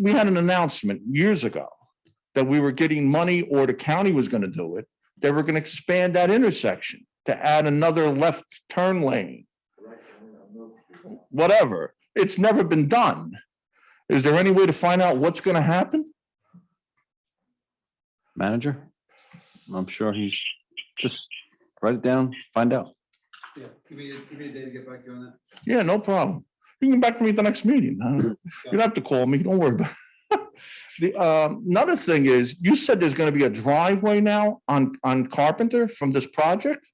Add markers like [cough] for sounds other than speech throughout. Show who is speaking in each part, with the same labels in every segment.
Speaker 1: we had an announcement years ago that we were getting money or the county was going to do it. They were going to expand that intersection to add another left turn lane. Whatever. It's never been done. Is there any way to find out what's going to happen?
Speaker 2: manager? I'm sure he's, just write it down, find out.
Speaker 3: Yeah, give me, a- give me a day to get back to you on that.
Speaker 1: Yeah, no problem. You can come back to me at the next meeting. huh? You don't have to call me. Don't worry about [laughs] it. The, um, another thing is, you said there's going to be a driveway now on, on Carpenter from this project?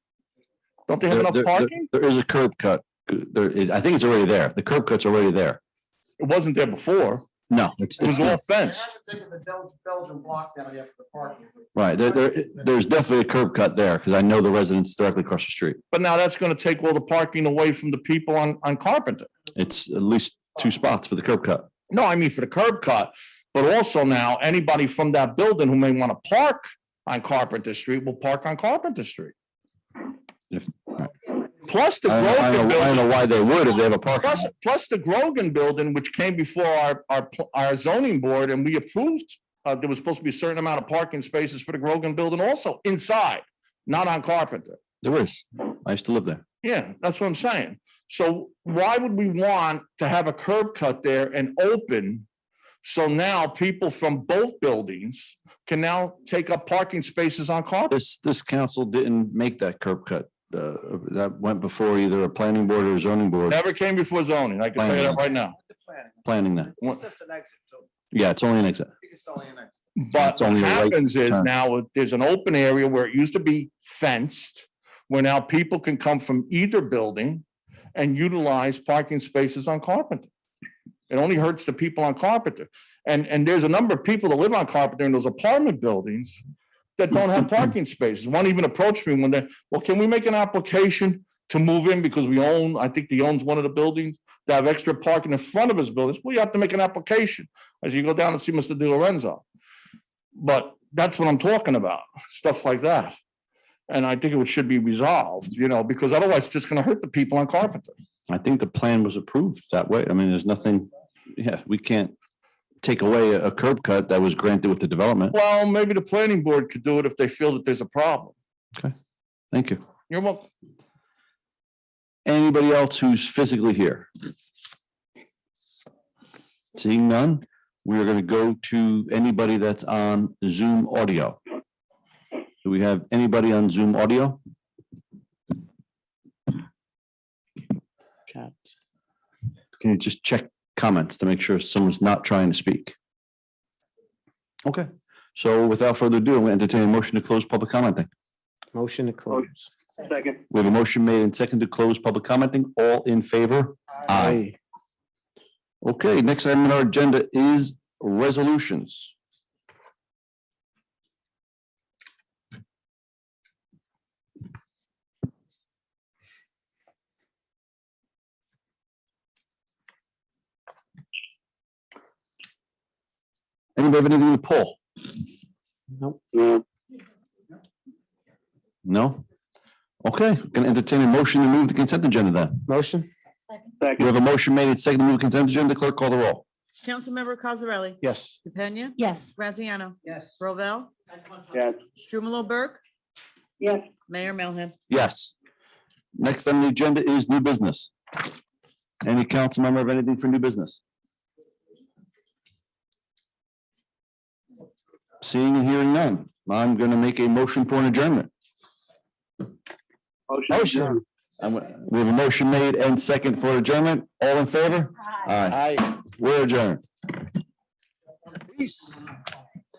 Speaker 1: Don't they have
Speaker 2: There-
Speaker 1: enough
Speaker 2: there- there-
Speaker 1: parking?
Speaker 2: There is a curb cut. There is, I think it's already there. The curb cut's already there.
Speaker 1: It wasn't there before.
Speaker 2: No, it's,
Speaker 1: It was
Speaker 2: it's not.
Speaker 1: all
Speaker 4: They
Speaker 1: fenced.
Speaker 4: haven't taken the Bel- Belgian block down yet for the parking.
Speaker 2: right. There, there, there's definitely a curb cut there because I know the residents directly across the street.
Speaker 1: But now that's going to take all the parking away from the people on, on Carpenter.
Speaker 2: It's at least two spots for the curb cut.
Speaker 1: No, I mean for the curb cut, but also now anybody from that building who may want to park on Carpenter Street will park on Carpenter Street.
Speaker 2: If-
Speaker 1: Plus the
Speaker 2: I don't- I
Speaker 1: Grogan
Speaker 2: don't know, I don't
Speaker 1: building,
Speaker 2: know why they would if they have a parking.
Speaker 1: plus,
Speaker 2: lot.
Speaker 1: plus the Grogan building, which came before our, our, pl- our zoning board and we approved, uh, there was supposed to be a certain amount of parking spaces for the Grogan building also inside, not on Carpenter.
Speaker 2: There is. I used to live there.
Speaker 1: Yeah, that's what I'm saying. So why would we want to have a curb cut there and open? So now people from both buildings can now take up parking spaces on Carpenter.
Speaker 2: This, this council didn't make that curb cut. Uh, that went before either a planning board or a zoning board
Speaker 1: Never came before zoning. I can tell you that right now.
Speaker 4: With the planning.
Speaker 2: planning that.
Speaker 1: What-
Speaker 4: It's just an exit, so
Speaker 2: Yeah, it's only an exit.
Speaker 4: you can sell an exit.
Speaker 1: But
Speaker 2: It's
Speaker 1: what
Speaker 2: only a right
Speaker 1: happens is
Speaker 2: turn.
Speaker 1: now there's an open area where it used to be fenced, where now people can come from either building and utilize parking spaces on Carpenter. It only hurts the people on Carpenter. And, and there's a number of people that live on Carpenter in those apartment buildings that don't
Speaker 2: [laughs]
Speaker 1: have parking spaces. One even approached me when they, well, can we make an application to move in because we own, I think he owns one of the buildings to have extra parking in front of his buildings? Well, you have to make an application as you go down and see Mr. Di Lorenzo. But that's what I'm talking about, stuff like that. And I think it would- should be resolved, you know, because otherwise it's just gonna hurt the people on Carpenter.
Speaker 2: I think the plan was approved that way. I mean, there's nothing, yeah, we can't take away a a curb cut that was granted with the development.
Speaker 1: Well, maybe the planning board could do it if they feel that there's a problem.
Speaker 2: Thank you.
Speaker 1: You're welcome.
Speaker 2: Anybody else who's physically here? Seeing none, we are going to go to anybody that's on Zoom audio. Do we have anybody on Zoom audio? Can you just check comments to make sure someone's not trying to speak? Okay, so without further ado, I'm going to entertain a motion to close public commenting.
Speaker 5: Motion to close.
Speaker 2: We have a motion made and second to close public commenting. All in favor? Aye. Okay, next item on our agenda is resolutions. Anybody have anything to pull?
Speaker 5: Nope.
Speaker 2: No? Okay, can entertain a motion to move the consent agenda then.
Speaker 5: Motion?
Speaker 2: We have a motion made and second to move consent agenda. Clerk call the roll.
Speaker 6: Councilmember Cosarelli?
Speaker 5: Yes.
Speaker 6: DePena?
Speaker 7: Yes.
Speaker 6: Graziano?
Speaker 4: Yes.
Speaker 6: Rovell?
Speaker 4: Yes.
Speaker 6: Strumelob Burke?
Speaker 7: Yes.
Speaker 6: Mayor Melham?
Speaker 2: Yes. Next on the agenda is new business. Any council member have anything for new business? Seeing and hearing none, I'm going to make a motion for an adjournment.
Speaker 5: Motion.
Speaker 2: I'm- We have a motion made and second for adjournment. All in favor? Aye. We're adjourned.
Speaker 5: Peace.